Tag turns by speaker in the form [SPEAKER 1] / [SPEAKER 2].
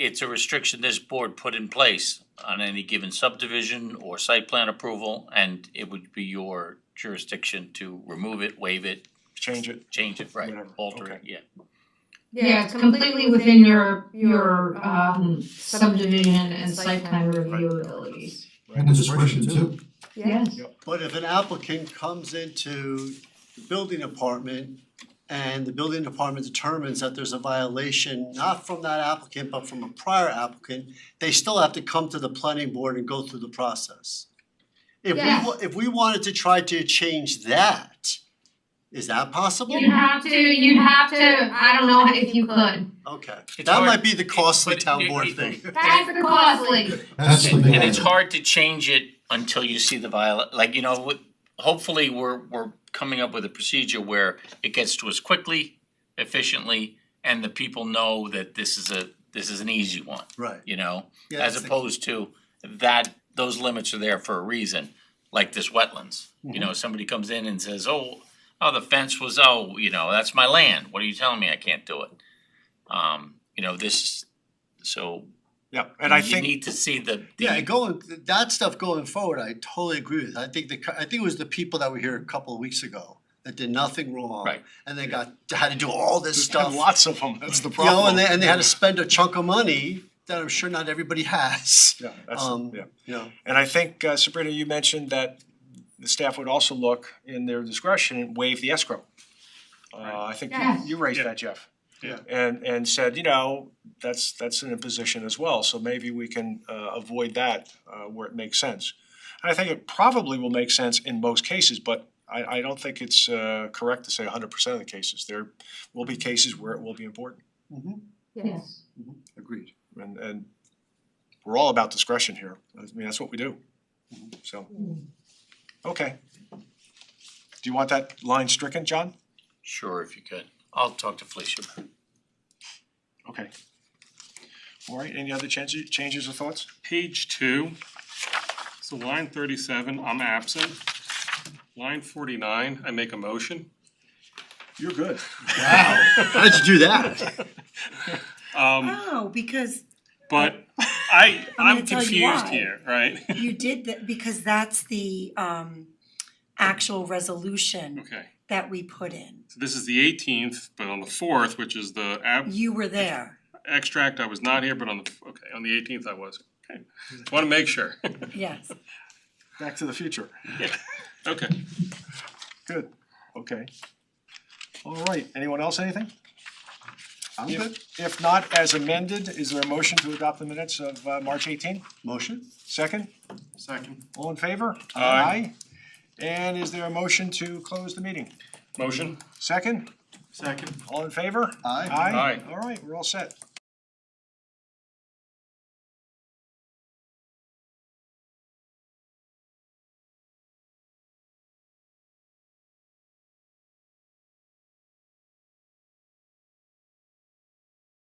[SPEAKER 1] it's a restriction this board put in place on any given subdivision or site plan approval, and it would be your jurisdiction to remove it, waive it,
[SPEAKER 2] change it.
[SPEAKER 1] change it, right,
[SPEAKER 2] Whatever,
[SPEAKER 1] alter it,
[SPEAKER 2] okay.
[SPEAKER 1] yeah.
[SPEAKER 3] Yeah, it's completely within your, your um subdivision and site plan review abilities.
[SPEAKER 4] And the discretion too.
[SPEAKER 3] Yes.
[SPEAKER 5] But if an applicant comes into the building department and the building department determines that there's a violation, not from that applicant, but from a prior applicant, they still have to come to the planning board and go through the process. If we, wa- if we wanted to try to change that, is that possible?
[SPEAKER 3] You have to, you have to, I don't know if you could.
[SPEAKER 5] Okay,
[SPEAKER 6] It's
[SPEAKER 5] that
[SPEAKER 6] hard.
[SPEAKER 5] might be the costly
[SPEAKER 6] But
[SPEAKER 5] town
[SPEAKER 6] it-
[SPEAKER 5] board
[SPEAKER 6] it-
[SPEAKER 5] thing.
[SPEAKER 3] That's the costly.
[SPEAKER 4] That's the
[SPEAKER 1] And
[SPEAKER 4] thing.
[SPEAKER 1] and it's hard to change it until you see the viola, like, you know, with- hopefully, we're we're coming up with a procedure where it gets to us quickly, efficiently, and the people know that this is a, this is an easy one,
[SPEAKER 5] Right,
[SPEAKER 1] you know?
[SPEAKER 5] yeah,
[SPEAKER 1] as
[SPEAKER 5] that's the-
[SPEAKER 1] opposed to that, those limits are there for a reason, like this wetlands. You
[SPEAKER 5] Mm-hmm.
[SPEAKER 1] know, somebody comes in and says, oh, oh, the fence was, oh, you know, that's my land, what are you telling me, I can't do it? Um, you know, this, so
[SPEAKER 2] Yeah, and I
[SPEAKER 1] you
[SPEAKER 2] think,
[SPEAKER 1] need to see the,
[SPEAKER 5] Yeah,
[SPEAKER 1] the,
[SPEAKER 5] going, that stuff going forward, I totally agree with. I think the, co- I think it was the people that were here a couple of weeks ago that did nothing wrong.
[SPEAKER 1] Right.
[SPEAKER 5] And they got, had to do all this
[SPEAKER 2] there's
[SPEAKER 5] stuff.
[SPEAKER 2] been lots of them, that's the
[SPEAKER 5] You know,
[SPEAKER 2] problem.
[SPEAKER 5] and they, and they had to spend a chunk of money that I'm sure not everybody has,
[SPEAKER 2] Yeah, that's,
[SPEAKER 5] um,
[SPEAKER 2] yeah.
[SPEAKER 5] you know,
[SPEAKER 2] And I think, uh, Sabrina, you mentioned that the staff would also look in their discretion and waive the escrow. Uh, I think you-
[SPEAKER 3] Yes.
[SPEAKER 2] you raised
[SPEAKER 7] Yeah.
[SPEAKER 2] that, Jeff.
[SPEAKER 5] Yeah.
[SPEAKER 2] And, and said, you know, that's, that's an imposition as well, so maybe we can, uh, avoid that, uh, where it makes sense. And I think it probably will make sense in most cases, but I, I don't think it's, uh, correct to say hundred percent of the cases. There will be cases where it will be important,
[SPEAKER 3] Yes.
[SPEAKER 5] agreed.
[SPEAKER 2] and, and we're all about discretion here. I mean, that's what we do, so. Okay. Do you want that line stricken, John?
[SPEAKER 1] sure, if you could, I'll talk to Felicia.
[SPEAKER 2] Okay. All right, any other changes, changes or thoughts?
[SPEAKER 7] Page two, so line thirty-seven, I'm absent. Line forty-nine, I make a motion.
[SPEAKER 2] You're good.
[SPEAKER 5] Wow, how'd you do that?
[SPEAKER 7] Um,
[SPEAKER 8] Oh, because
[SPEAKER 7] but I,
[SPEAKER 8] I'm
[SPEAKER 7] I'm
[SPEAKER 8] gonna tell you
[SPEAKER 7] confused
[SPEAKER 8] why.
[SPEAKER 7] here, right?
[SPEAKER 8] you did that, because that's the um actual resolution
[SPEAKER 7] Okay,
[SPEAKER 8] that we put in.
[SPEAKER 7] so this is the eighteenth, but on the fourth, which is the ab-
[SPEAKER 8] You were there,
[SPEAKER 7] extract, I was not here, but on the, okay, on the eighteenth I was. Okay, wanna make sure.
[SPEAKER 8] yes.
[SPEAKER 2] Back to the future.
[SPEAKER 7] Okay,
[SPEAKER 2] Good, okay. All right, anyone else, anything?
[SPEAKER 5] I'm
[SPEAKER 2] If-
[SPEAKER 5] good.
[SPEAKER 2] If not, as amended, is there a motion to adopt the minutes of uh, March 18?
[SPEAKER 5] Motion?
[SPEAKER 2] Second,
[SPEAKER 5] Second.
[SPEAKER 2] all in favor?
[SPEAKER 7] Aye.
[SPEAKER 2] And is there a motion to close the meeting?
[SPEAKER 7] motion?
[SPEAKER 2] Second,
[SPEAKER 5] Second.
[SPEAKER 2] all in favor?
[SPEAKER 5] Aye.
[SPEAKER 2] Aye,
[SPEAKER 7] Aye.
[SPEAKER 2] all right, we're all set.